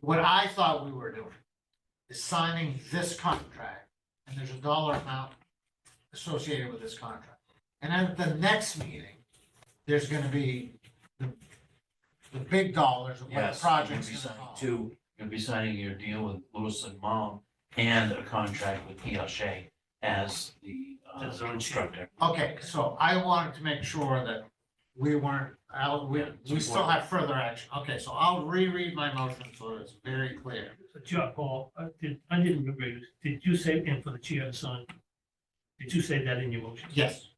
What I thought we were doing is signing this contract, and there's a dollar amount associated with this contract. And then at the next meeting, there's gonna be the, the big dollars of what the Yes, you're gonna project's be gonna signing cost. two, you're gonna be signing your deal with Lewis and Mom and a contract with E L Shea as the uh, As our chief. constructor. Okay, so I wanted to make sure that we weren't, out- we, we still have further action. Okay, so I'll reread my motion so it's very clear. John Paul, I uh, did, I didn't remember, you. did you say, and for the chair and son, did you say that in your motion? Yes.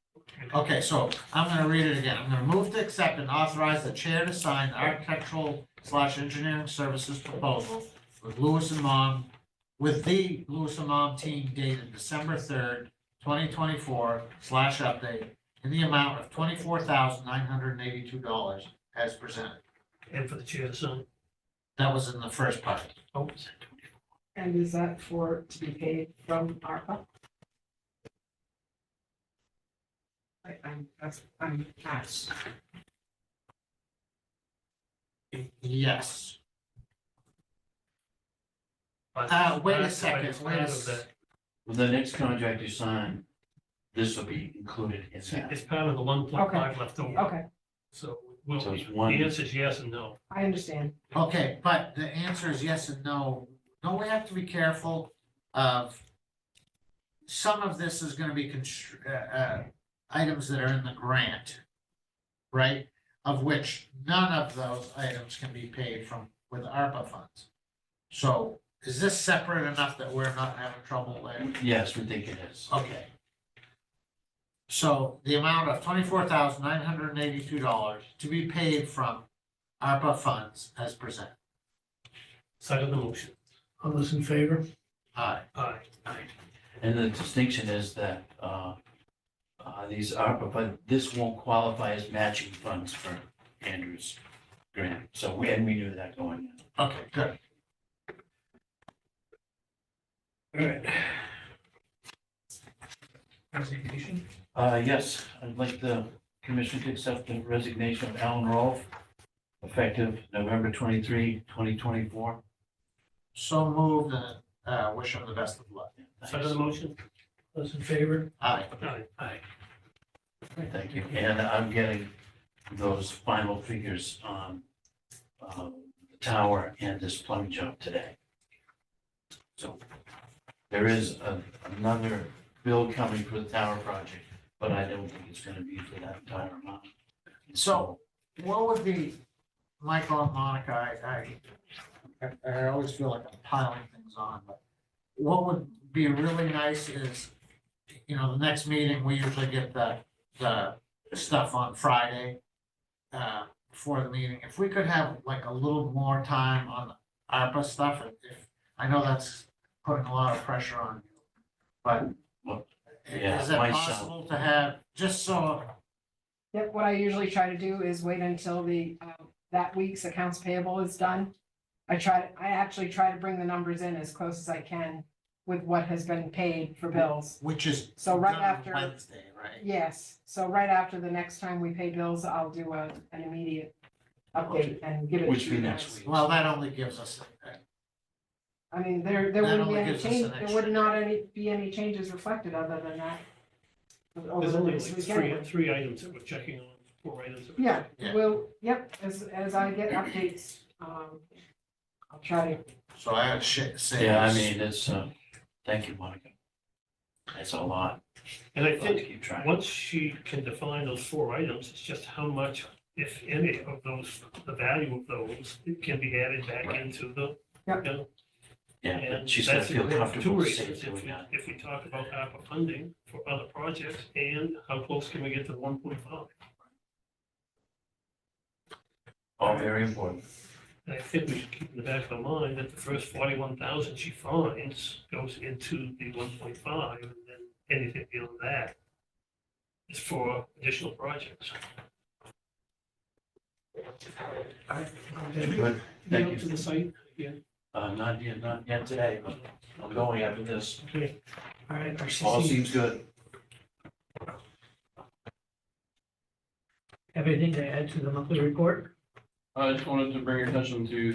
Okay, so I'm gonna read it again. I'm gonna move to accept and authorize the chair to sign the architectural slash engineering services proposal with Lewis and Mom, with the Lewis and Mom team dated December third, twenty twenty-four slash update in the amount of twenty-four thousand nine hundred and eighty-two dollars as presented. And for the chair and son, That was in the first part. oh, And is that for, to be paid from ARPA? I, I'm, that's, I'm asked. Yes, but- Uh, wait a but it's second, wait a part of s- that- With the next contract you sign, this will be included in that. It's part of the one point five left over, Okay, so we'll, So the it's one. answer is yes and no. I understand. okay, but the answer is yes and no. Don't we have to be careful of some of this is gonna be constr- uh, uh, items that are in the grant, right? Of which none of those items can be paid from with ARPA funds. So is this separate enough that we're not having trouble later? Yes, we think it is. Okay. So the amount of twenty-four thousand nine hundred and eighty-two dollars to be paid from ARPA funds as presented. Side of the motion. All those in favor? Aye. Aye. Aye. And the distinction is that uh, uh, these ARPA, but this won't qualify as matching funds for Andrew's grant. So, we- and we knew that going in. Okay, good. All right. Presentation? Uh, yes, I'd like the commission to accept the resignation of Alan Rolfe, effective November 23, 2024. So moved and, uh, wish him the best of luck. Side of the motion? Those in favor? Aye. Aye. Aye. Thank you. And I'm getting those final figures on um, the tower and this plumbing job today. So there is a- another bill coming for the tower project, but I don't think it's going to be for that entire amount. So- What would be, Michael and Monica, I, I, I always feel like I'm piling things on, but what would be really nice is, you know, the next meeting, we usually get the, the stuff on Friday uh, before the meeting. If we could have like a little more time on the ARPA stuff, if- if, I know that's putting a lot of pressure on you, but Well, yeah, is it myself. possible to have, just so, Yep, what I usually try to do is wait until the, uh, that week's accounts payable is done. I try, I actually try to bring the numbers in as close as I can with what has been paid for bills. which is So right done after- Wednesday, right? Yes, so right after the next time we pay bills, I'll do a, an immediate update and give it to you Which be guys. next week. Well, that only gives us, I mean, there, there That wouldn't only be any gives us an change, there extra would not any, be any changes reflected other than that. over There's the only like next three, weekend. three items that we're checking on, four items. that we're Yeah, Yeah. well, yep, as, as I get updates, um, I'll try to, so I had shit to say. Yeah, I mean, it's, uh, thank you, Monica. It's a lot. checking. And I I'll have to think, keep track. once she can define those four items, it's just how much, if any, of those, the value of those can be added back Right. into the. Yep. you know, Yeah, and but she's gonna that's feel for Two comfortable saying reasons, if doing we, that. if we talk about ARPA funding for other projects, and how close can we get to one point five? All very important. And I think we should keep in the back of our mind that the first forty-one thousand she finds goes into the one point five, and then anything beyond that is for additional projects. Good. Thank you. To the site, yeah, Uh, not yet, not yet today, but I'm going after this. okay. All right, our All seems good. have anything to add to the monthly report? I just wanted to bring your attention to